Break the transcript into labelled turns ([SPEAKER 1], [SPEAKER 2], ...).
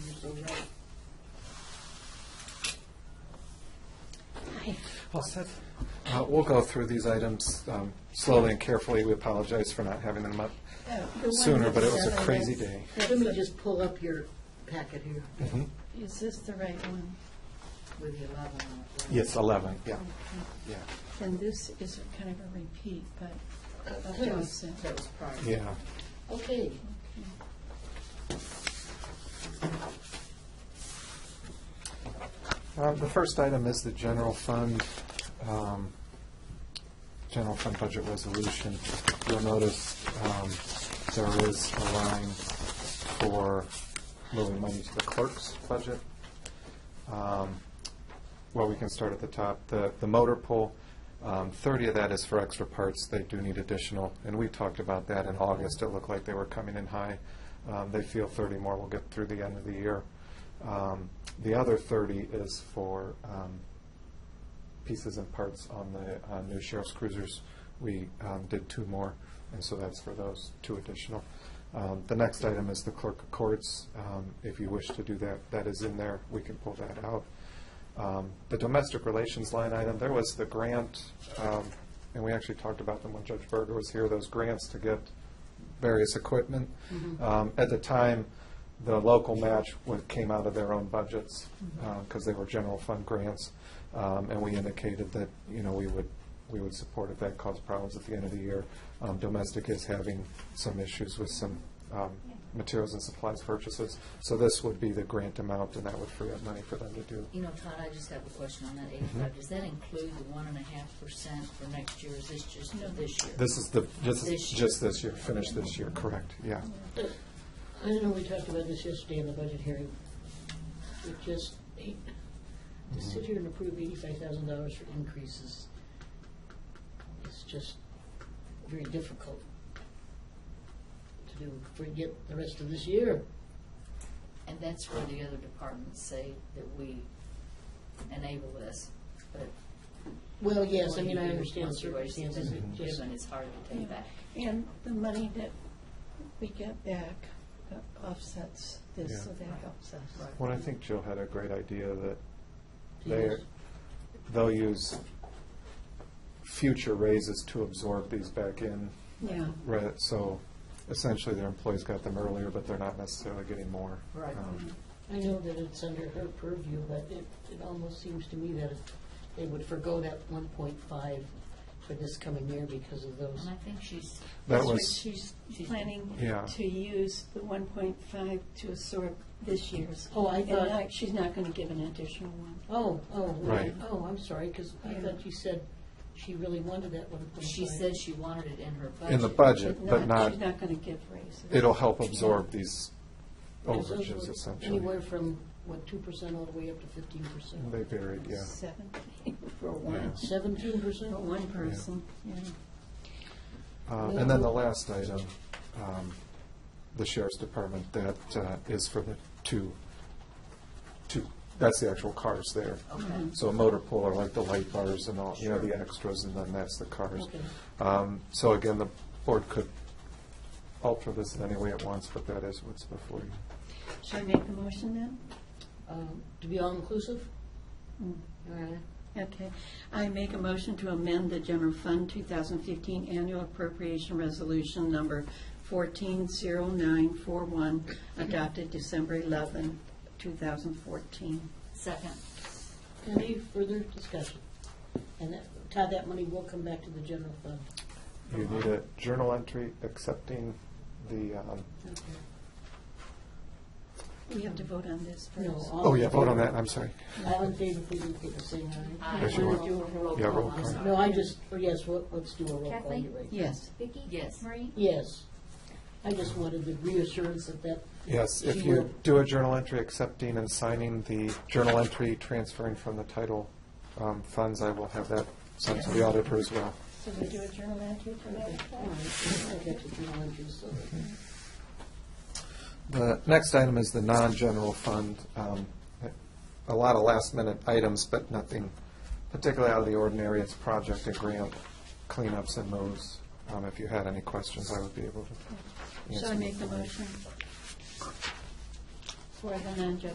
[SPEAKER 1] All set. Uh, We'll go through these items um, slowly and carefully. We apologize for not having them up sooner, but it was a crazy day.
[SPEAKER 2] Let me just pull up your packet here
[SPEAKER 1] Mhm.
[SPEAKER 3] Is this the right one?
[SPEAKER 2] with the 11 on it. right?
[SPEAKER 1] Yes, 11, yeah, yeah,
[SPEAKER 3] And this is a kind of a repeat, but,
[SPEAKER 2] That was that was prior.
[SPEAKER 1] yeah.
[SPEAKER 2] Okay.
[SPEAKER 1] Um, The first item is the general fund, um, general fund budget resolution. You'll notice um, there is a line for moving money to the clerk's budget. Um, Well, we can start at the top. The the motor pool, um, 30 of that is for extra parts. They do need additional, and we talked about that in August. It looked like they were coming in high. Um, They feel 30 more will get through the end of the year. Um, The other 30 is for um, pieces and parts on the uh, new sheriff's cruisers. We um, did two more, and so that's for those two additional. Um, The next item is the clerk of courts. Um, If you wish to do that, that is in there. We can pull that out. Um, The domestic relations line item, there was the grant, um, and we actually talked about them when Judge Berger was here, those grants to get various equipment. Um, At the time, the local match wa- came out of their own budgets
[SPEAKER 4] Mm-hmm.
[SPEAKER 1] because they were general fund grants. Um, And we indicated that, you know, we would, we would support if that caused problems at the end of the year. Um, Domestic is having some issues with some um, materials and supplies purchases. So this would be the grant amount and that would free up money for them to do.
[SPEAKER 4] You know, Todd, I just have a question on that
[SPEAKER 1] Mm-hmm.
[SPEAKER 4] eighty-five. Does that include the one and a half percent for next year? Is this just for this year?
[SPEAKER 1] This is the, this is
[SPEAKER 4] This year. Mm-hmm.
[SPEAKER 1] just this year, finish this year, correct, yeah.
[SPEAKER 2] I don't know, we talked about this yesterday in the budget hearing. It just, to sit here and approve eighty-five thousand dollars for increases is just very difficult to do, forget the rest of this year.
[SPEAKER 4] And that's where the other departments say that we enable this, but.
[SPEAKER 2] Well, yes, I mean, I
[SPEAKER 4] when you-
[SPEAKER 2] understand
[SPEAKER 4] once you raise it,
[SPEAKER 2] circumstances, it
[SPEAKER 4] then
[SPEAKER 2] just,
[SPEAKER 4] Given, it's hard to take back.
[SPEAKER 3] and the money that we get back offsets this, so
[SPEAKER 1] Yeah.
[SPEAKER 3] that helps us.
[SPEAKER 1] Well, I think Jill had a great idea that they,
[SPEAKER 2] Yes.
[SPEAKER 1] they'll use future raises to absorb these back in,
[SPEAKER 3] Yeah,
[SPEAKER 1] right? So essentially, their employees got them earlier, but they're not necessarily getting more.
[SPEAKER 4] Right.
[SPEAKER 1] Um,
[SPEAKER 2] I know that it's under her purview, but it, it almost seems to me that they would forego that one point five for this coming year because of those.
[SPEAKER 4] And I think she's,
[SPEAKER 1] That
[SPEAKER 3] that's what
[SPEAKER 1] was,
[SPEAKER 3] she's planning
[SPEAKER 1] Yeah.
[SPEAKER 3] to use, the one point five to absorb this year's.
[SPEAKER 2] Oh, I
[SPEAKER 3] And
[SPEAKER 2] thought-
[SPEAKER 3] not- she's not gonna give an additional one.
[SPEAKER 2] Oh, oh,
[SPEAKER 1] Right.
[SPEAKER 2] right. oh, I'm sorry, because I
[SPEAKER 3] Yeah.
[SPEAKER 2] thought you said she really wanted that one point five.
[SPEAKER 4] she said she wanted it in her budget.
[SPEAKER 1] in the budget,
[SPEAKER 3] She's
[SPEAKER 1] but not,
[SPEAKER 3] She's not gonna give raises.
[SPEAKER 1] it'll help absorb these
[SPEAKER 2] Because those
[SPEAKER 1] overages
[SPEAKER 2] were
[SPEAKER 1] essentially.
[SPEAKER 2] Anywhere from, what, two percent all the way up to fifteen percent?
[SPEAKER 1] They varied, yeah.
[SPEAKER 3] Seventeen for one,
[SPEAKER 2] Seventeen percent?
[SPEAKER 4] Oh,
[SPEAKER 3] for one person, yeah.
[SPEAKER 1] Uh, And then the last item, um, the sheriff's department, that uh, is for the two, two, that's the actual cars there.
[SPEAKER 2] Mm-hmm.
[SPEAKER 4] Okay.
[SPEAKER 1] So motor pool are like the light bars and all, you know, the
[SPEAKER 4] Sure.
[SPEAKER 1] extras, and then that's the cars.
[SPEAKER 2] Okay.
[SPEAKER 1] Um, So again, the board could alter this in any way it wants, but that is what's before you.
[SPEAKER 3] Should I make the motion then?
[SPEAKER 2] Um, To be all-inclusive?
[SPEAKER 3] Mm.
[SPEAKER 2] All right.
[SPEAKER 3] Okay. I make a motion to amend the general fund 2015 annual appropriation resolution number 140941, adopted December 11, 2014.
[SPEAKER 4] Second,
[SPEAKER 2] Any further discussion? And that, Todd, that money will come back to the general fund.
[SPEAKER 1] You need a journal entry accepting the, um,
[SPEAKER 3] We have to vote on this first.
[SPEAKER 2] No, all-
[SPEAKER 1] oh yeah, vote on that, I'm sorry.
[SPEAKER 2] All in favor, please indicate by saying aye.
[SPEAKER 4] Aye.
[SPEAKER 1] Yes, you
[SPEAKER 2] We're
[SPEAKER 1] are.
[SPEAKER 2] gonna do a roll
[SPEAKER 1] Yeah,
[SPEAKER 2] call.
[SPEAKER 1] roll
[SPEAKER 4] I'm
[SPEAKER 1] call.
[SPEAKER 4] sorry.
[SPEAKER 2] No, I just, or yes, well, let's do a roll call.
[SPEAKER 5] Kathleen?
[SPEAKER 2] You're right.
[SPEAKER 3] Yes.
[SPEAKER 5] Vicki?
[SPEAKER 4] Yes.
[SPEAKER 5] Marie?
[SPEAKER 2] Yes. I just wanted the reassurance that that.
[SPEAKER 1] Yes, if
[SPEAKER 2] she
[SPEAKER 1] you
[SPEAKER 2] will-
[SPEAKER 1] do a journal entry accepting and signing the journal entry transferring from the title um, funds, I will have that sent to the auditor as well.
[SPEAKER 3] So we do a journal entry for that?
[SPEAKER 2] All right, I got your journal entries, so-
[SPEAKER 1] The next item is the non-general fund. Um, A lot of last-minute items, but nothing particularly out of the ordinary. It's project and grant cleanups and moves. Um, If you had any questions, I would be able to answer.
[SPEAKER 3] Shall I make the
[SPEAKER 1] them.
[SPEAKER 3] motion? For the non